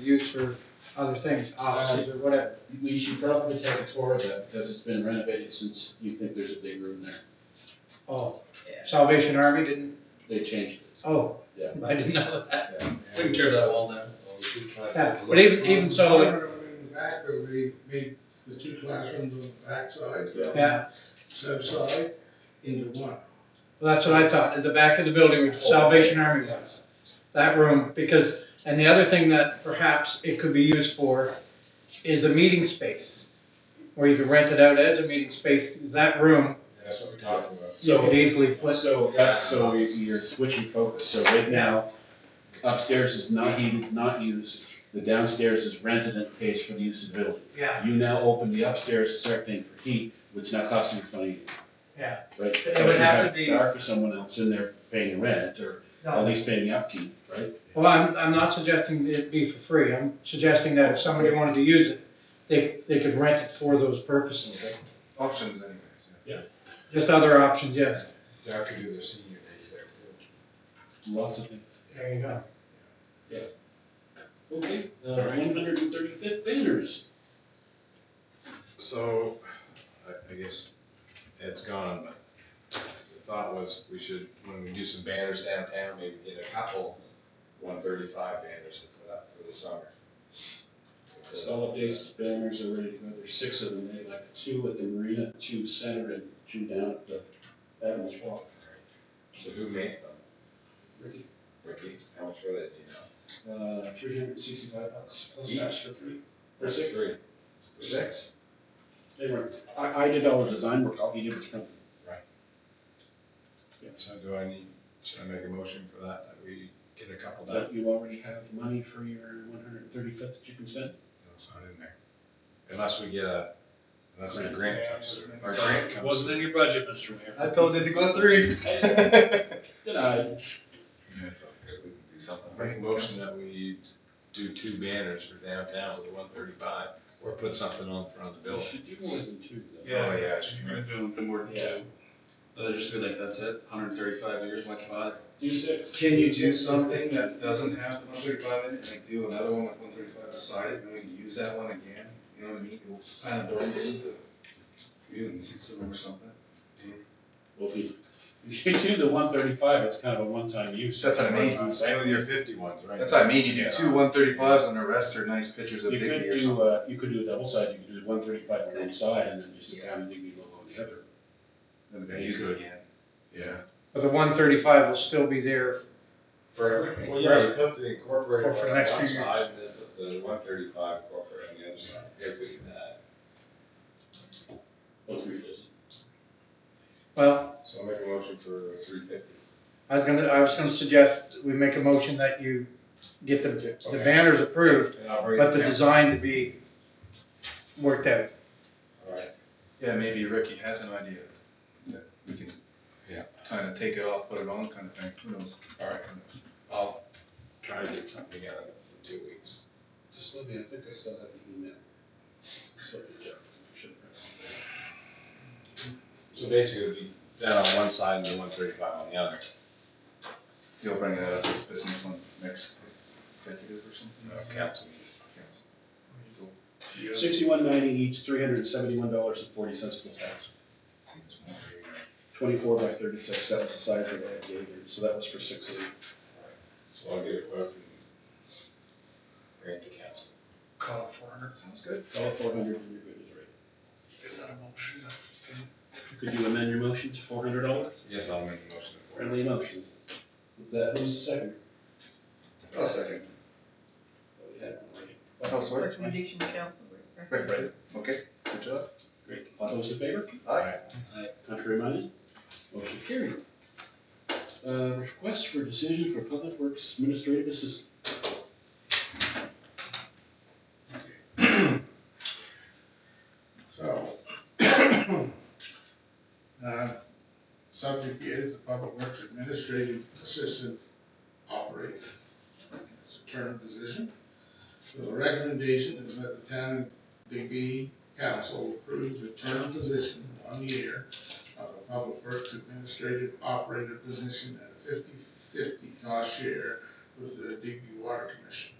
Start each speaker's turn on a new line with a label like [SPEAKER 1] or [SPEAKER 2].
[SPEAKER 1] use for other things, offices or whatever.
[SPEAKER 2] We should probably take a tour of that because it's been renovated since you think there's a big room there.
[SPEAKER 1] Oh,
[SPEAKER 3] Yeah.
[SPEAKER 1] Salvation Army didn't,
[SPEAKER 2] They changed it.
[SPEAKER 1] oh,
[SPEAKER 2] Yeah.
[SPEAKER 1] I didn't know that.
[SPEAKER 4] We can tear that wall down.
[SPEAKER 1] Yeah, But even, even so, like,
[SPEAKER 5] In the back, there would be, be the two classrooms on the back side.
[SPEAKER 1] yeah,
[SPEAKER 5] Sub side into one.
[SPEAKER 1] well, that's what I thought, at the back of the building where Salvation Army was. That room, because, and the other thing that perhaps it could be used for is a meeting space. Where you could rent it out as a meeting space, that room,
[SPEAKER 4] That's what we're talking about.
[SPEAKER 1] you could easily put
[SPEAKER 2] So, that- so you- you're switching focus, so right now upstairs is not heated, not used, the downstairs is rented and pays for the use of the building.
[SPEAKER 1] Yeah.
[SPEAKER 2] You now open the upstairs, start paying for heat, which now costs you money.
[SPEAKER 1] Yeah.
[SPEAKER 2] Right?
[SPEAKER 1] It would have to be-
[SPEAKER 2] Dark or someone else in there paying rent, or at
[SPEAKER 1] No.
[SPEAKER 2] least paying the upkeep, right?
[SPEAKER 1] Well, I'm, I'm not suggesting it be for free, I'm suggesting that if somebody wanted to use it, they, they could rent it for those purposes.
[SPEAKER 4] Options anyways,
[SPEAKER 1] Just other options, yes.
[SPEAKER 4] yeah. They have to do their senior days there too.
[SPEAKER 2] Lots of things.
[SPEAKER 1] There you go.
[SPEAKER 2] Okay, uh, one hundred and thirty-fifth banners.
[SPEAKER 4] So, I, I guess Ed's gone, but the thought was we should, when we do some banners downtown, maybe get a couple one thirty-five banners for that, for the summer.
[SPEAKER 2] Solid waste banners are ready to go, there's six of them, they like two at the marina, two center, and two down at the Adams Walk.
[SPEAKER 4] So who makes them?
[SPEAKER 2] Ricky,
[SPEAKER 4] Ricky, how much were they, do you know?
[SPEAKER 2] uh, three hundred and sixty-five bucks, plus
[SPEAKER 4] Each?
[SPEAKER 2] tax for three, for six.
[SPEAKER 4] Three. Six?
[SPEAKER 2] They were, I, I did all the design work, I'll be able to print.
[SPEAKER 4] So do I need, should I make a motion for that, that we get a couple done?
[SPEAKER 2] But you already have money for your one hundred and thirty-fifth that you can spend?
[SPEAKER 4] No, it's not in there. Unless we get a, unless a
[SPEAKER 2] Grant.
[SPEAKER 4] grant comes through, our grant comes.
[SPEAKER 6] Wasn't in your budget, Mr. Mayor.
[SPEAKER 5] I told you to go three.
[SPEAKER 2] Did I?
[SPEAKER 4] Yeah, it's okay, we can do something. Make a motion that we do two banners for downtown with the one thirty-five, or put something on front of the
[SPEAKER 2] You
[SPEAKER 4] building.
[SPEAKER 2] should do more than two, though.
[SPEAKER 6] Yeah.
[SPEAKER 4] Oh, yeah,
[SPEAKER 6] You're gonna do no more than two. They'll just be like, that's it, hundred and thirty-five years, much bother.
[SPEAKER 2] Do six.
[SPEAKER 7] Can you do something that doesn't have the one thirty-five in it, and like do another one with one thirty-five aside, and then we can use that one again? You know what I mean? We'll Kind of don't need the, you can six of them or something.
[SPEAKER 2] Well, if you, if you do the one thirty-five, it's kind of a one-time use.
[SPEAKER 7] That's what I mean.
[SPEAKER 2] One-time
[SPEAKER 4] Same with your fifty ones, right?
[SPEAKER 7] That's what I mean, you
[SPEAKER 4] Yeah.
[SPEAKER 7] do two one thirty-fives and the rest are nice pictures of
[SPEAKER 2] You could
[SPEAKER 7] Biggie or
[SPEAKER 2] do,
[SPEAKER 7] something.
[SPEAKER 2] uh, you could do a double side, you could do one thirty-five on one side and then just
[SPEAKER 7] Yeah.
[SPEAKER 2] kind of dig your logo on the other.
[SPEAKER 7] And then use it again.
[SPEAKER 4] Yeah.
[SPEAKER 1] But the one thirty-five will still be there.
[SPEAKER 4] For everything. Well, yeah, you put the
[SPEAKER 1] For
[SPEAKER 4] incorporated
[SPEAKER 1] the
[SPEAKER 4] one on
[SPEAKER 1] next few
[SPEAKER 4] one
[SPEAKER 1] years.
[SPEAKER 4] side, and then put the one thirty-five corporate on the other side. Yeah, we could do that.
[SPEAKER 2] Well, three fifty.
[SPEAKER 1] Well,
[SPEAKER 4] So I'll make a motion for three fifty.
[SPEAKER 1] I was gonna, I was gonna suggest we make a motion that you get the, the
[SPEAKER 4] Okay.
[SPEAKER 1] banners approved,
[SPEAKER 4] And I'll break
[SPEAKER 1] but the
[SPEAKER 4] it down.
[SPEAKER 1] design to be worked out.
[SPEAKER 4] All right.
[SPEAKER 7] Yeah, maybe Ricky has an idea. that We can
[SPEAKER 4] Yeah.
[SPEAKER 7] kind of take it off, put it on kind of thing, who knows?
[SPEAKER 4] All right, I'll try to get something together in two weeks.
[SPEAKER 2] Just let me, I think I still have the email.
[SPEAKER 4] So basically, it'd be that on one side and the one thirty-five on the other.
[SPEAKER 7] See, I'll bring that up as business on next executive or something.
[SPEAKER 4] uh, Council meeting.
[SPEAKER 7] Council.
[SPEAKER 2] Sixty-one ninety each, three hundred and seventy-one dollars and forty cents plus tax.
[SPEAKER 7] Seems more fair.
[SPEAKER 2] Twenty-four by thirty-six, that was the size of that gave you, so that was for six of them.
[SPEAKER 4] So I'll get it quote and bring it to council.
[SPEAKER 6] Call it four hundred.
[SPEAKER 7] Sounds good.
[SPEAKER 2] All four hundred and you're good, is right.
[SPEAKER 6] Is that a motion? That's a pin.
[SPEAKER 2] Could you amend your motion to four hundred dollars?
[SPEAKER 4] Yes, I'll make a motion for it.
[SPEAKER 2] Friendly motion. With that, who's second?
[SPEAKER 7] I'll second.
[SPEAKER 2] Oh, we had one already.
[SPEAKER 7] Oh, sorry.
[SPEAKER 3] Recommendation council.
[SPEAKER 7] Right, right, okay, good job.
[SPEAKER 2] Great. All those in favor?
[SPEAKER 7] Aye.
[SPEAKER 2] Contrary minded? Motion carried. Uh, request for decision for Public Works Administrative Assistant.
[SPEAKER 5] So, uh, subject is the Public Works Administrative Assistant Operator. It's a term position. So the recommendation is that the town of Digby Council approves the term position one year of the Public Works Administrative Operator position at a 50-50 cost share with the Digby Water Commission.